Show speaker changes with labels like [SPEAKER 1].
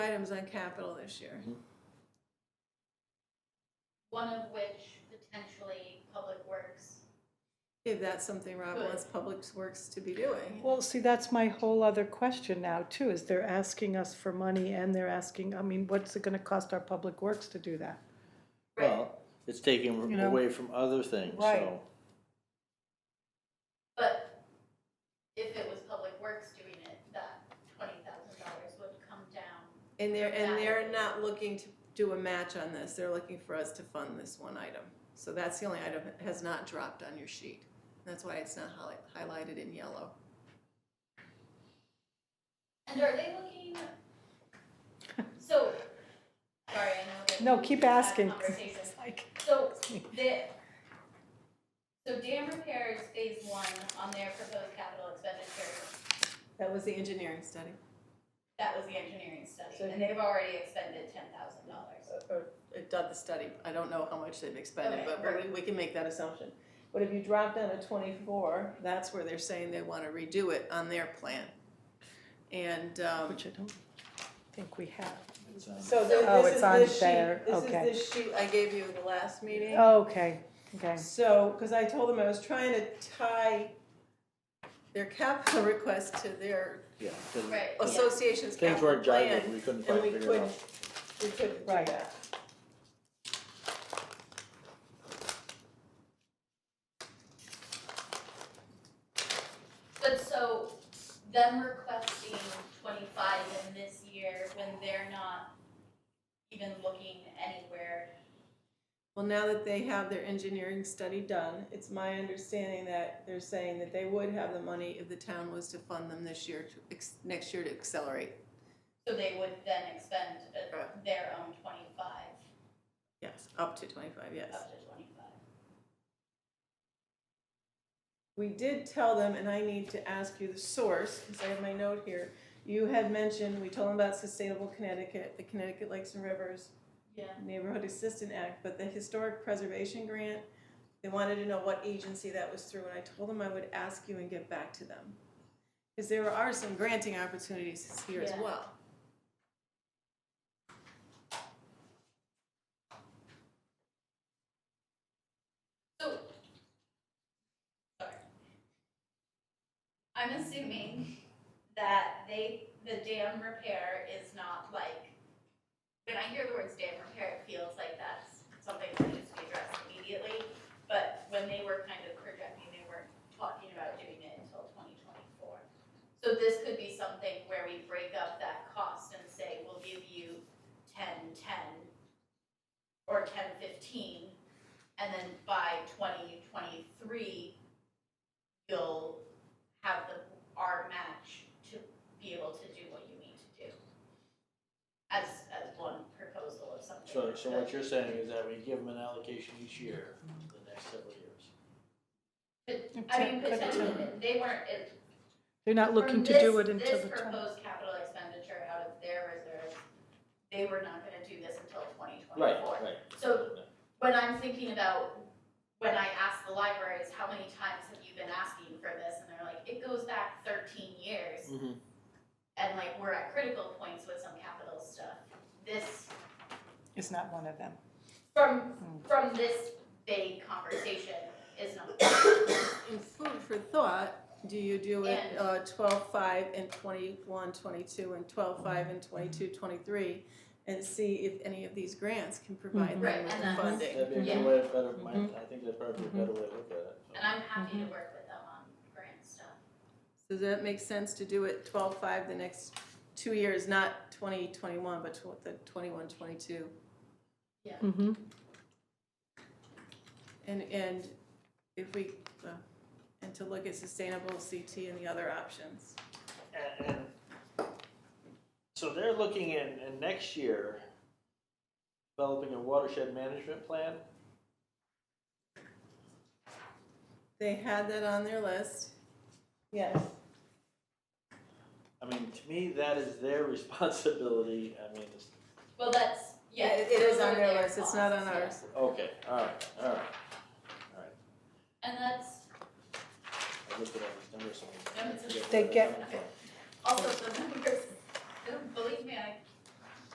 [SPEAKER 1] items on capital this year.
[SPEAKER 2] one of which potentially Public Works.
[SPEAKER 1] If that's something Rob
[SPEAKER 2] Good.
[SPEAKER 1] wants Public Works to be doing.
[SPEAKER 3] Well, see, that's my whole other question now too, is they're asking us for money and they're asking, I mean, what's it gonna cost our public works to do that?
[SPEAKER 4] Well, it's taken
[SPEAKER 3] You know?
[SPEAKER 4] away from other things,
[SPEAKER 3] Right.
[SPEAKER 4] so.
[SPEAKER 2] But if it was Public Works doing it, that twenty thousand dollars would come down.
[SPEAKER 1] And they're, and they're
[SPEAKER 2] Exactly.
[SPEAKER 1] not looking to do a match on this, they're looking for us to fund this one item. So that's the only item that has not dropped on your sheet. That's why it's not highli- highlighted in yellow.
[SPEAKER 2] And are they looking? So, sorry, I know that.
[SPEAKER 3] No,
[SPEAKER 2] we
[SPEAKER 3] keep
[SPEAKER 2] had
[SPEAKER 3] asking.
[SPEAKER 2] Conversation.
[SPEAKER 3] It's like-
[SPEAKER 2] So the, so dam repairs phase one on their proposed capital expenditure,
[SPEAKER 1] That was the engineering study.
[SPEAKER 2] that was the engineering
[SPEAKER 1] So-
[SPEAKER 2] study, and they've already expended ten thousand dollars.
[SPEAKER 1] Uh, Or it done the study, I don't know how much they've expended,
[SPEAKER 2] Okay,
[SPEAKER 1] but we, we can make that assumption. But if you drop down to twenty-four, that's where they're saying they wanna redo it on their plan. And, um,
[SPEAKER 3] Which I don't think we have.
[SPEAKER 4] it's, um,
[SPEAKER 1] so th-
[SPEAKER 3] Oh,
[SPEAKER 1] this
[SPEAKER 3] it's
[SPEAKER 1] is
[SPEAKER 3] on
[SPEAKER 1] this
[SPEAKER 3] there,
[SPEAKER 1] sheet, this is
[SPEAKER 3] okay.
[SPEAKER 1] this sheet I gave you the last meeting.
[SPEAKER 3] Okay, okay.
[SPEAKER 1] So, because I told them I was trying to tie their capital request to their
[SPEAKER 4] Yeah,
[SPEAKER 3] Oh,
[SPEAKER 4] 'cause
[SPEAKER 2] Right,
[SPEAKER 1] Oh,
[SPEAKER 2] yeah.
[SPEAKER 1] association's
[SPEAKER 4] things
[SPEAKER 1] capital
[SPEAKER 4] weren't
[SPEAKER 1] plan.
[SPEAKER 4] jiving, we couldn't
[SPEAKER 1] And
[SPEAKER 4] quite
[SPEAKER 1] we
[SPEAKER 4] figure it
[SPEAKER 1] couldn't,
[SPEAKER 4] out.
[SPEAKER 1] we couldn't do
[SPEAKER 3] Right.
[SPEAKER 1] that.
[SPEAKER 2] But so them requesting twenty-five in this year when they're not even looking anywhere.
[SPEAKER 1] Well, now that they have their engineering study done, it's my understanding that they're saying that they would have the money if the town was to fund them this year, to ex- next year to accelerate.
[SPEAKER 2] So they would then expend uh,
[SPEAKER 1] Right.
[SPEAKER 2] their own twenty-five,
[SPEAKER 1] Yes, up to twenty-five, yes.
[SPEAKER 2] up to twenty-five.
[SPEAKER 1] We did tell them, and I need to ask you the source, because I have my note here. You had mentioned, we told them about Sustainable Connecticut, the Connecticut Lakes and Rivers,
[SPEAKER 2] Yeah.
[SPEAKER 1] Neighborhood Assistance Act, but the Historic Preservation Grant, they wanted to know what agency that was through, and I told them I would ask you and get back to them. Because there are some granting opportunities here as
[SPEAKER 2] Yeah.
[SPEAKER 1] well.
[SPEAKER 2] So, sorry. I'm assuming that they, the dam repair is not like, when I hear the words dam repair, it feels like that's something that needs to be addressed immediately. But when they were kind of projecting, they weren't talking about doing it until twenty twenty-four. So this could be something where we break up that cost and say, we'll give you ten, ten, or ten, fifteen, and then by twenty twenty-three, you'll have the, our match to be able to do what you need to do. As, as one proposal of something.
[SPEAKER 4] So, so what
[SPEAKER 2] that
[SPEAKER 4] you're saying is that we give them an allocation each year, for the next several years.
[SPEAKER 2] could- I mean, potentially, they weren't, it.
[SPEAKER 3] They're not looking to do it until the
[SPEAKER 2] This
[SPEAKER 3] time.
[SPEAKER 2] proposed capital expenditure out of their reserves, they were not gonna do this until twenty
[SPEAKER 4] Right,
[SPEAKER 2] twenty-four.
[SPEAKER 4] right.
[SPEAKER 2] So when I'm thinking about when I ask the libraries, how many times have you been asking for this? And they're like, it goes back thirteen years.
[SPEAKER 4] Mhm.
[SPEAKER 2] And like, we're at critical points with some capital stuff. This,
[SPEAKER 3] It's not one of them.
[SPEAKER 2] from, from this vague conversation is not.
[SPEAKER 1] In food for thought, do you do it
[SPEAKER 2] And-
[SPEAKER 1] uh, 12, 5, and 21, 22, and 12, 5, and 22, 23, and see if any of these grants can provide them
[SPEAKER 2] Mhm. Right,
[SPEAKER 1] with
[SPEAKER 2] and
[SPEAKER 1] the
[SPEAKER 2] that's-
[SPEAKER 1] funding?
[SPEAKER 4] That'd be a
[SPEAKER 2] Yeah.
[SPEAKER 4] good way, of better, my- I think that'd probably be a better way to look at it. so.
[SPEAKER 2] And I'm happy to work with them on grant stuff.
[SPEAKER 1] So does that make sense to do it 12, 5 the next two years, not 2021, but tw- the 21, 22?
[SPEAKER 3] Mm-hmm.
[SPEAKER 1] And, and if we, uh, and to look at sustainable CT and the other options.
[SPEAKER 4] And, and, so they're looking in, in next year, developing a watershed management plan.
[SPEAKER 1] They had that on their list. Yes.
[SPEAKER 4] I mean, to me, that is their responsibility, I mean, it's,
[SPEAKER 2] Well, that's, yeah.
[SPEAKER 1] It it is
[SPEAKER 2] those
[SPEAKER 1] on
[SPEAKER 2] are
[SPEAKER 1] their list, it's not on
[SPEAKER 2] costs, yeah.
[SPEAKER 1] ours.
[SPEAKER 4] okay, all right, all right.
[SPEAKER 2] And that's
[SPEAKER 4] I looked at all these numbers, so I
[SPEAKER 2] They
[SPEAKER 4] forget where
[SPEAKER 3] get-
[SPEAKER 4] coming from.
[SPEAKER 2] also the numbers, don't believe me, I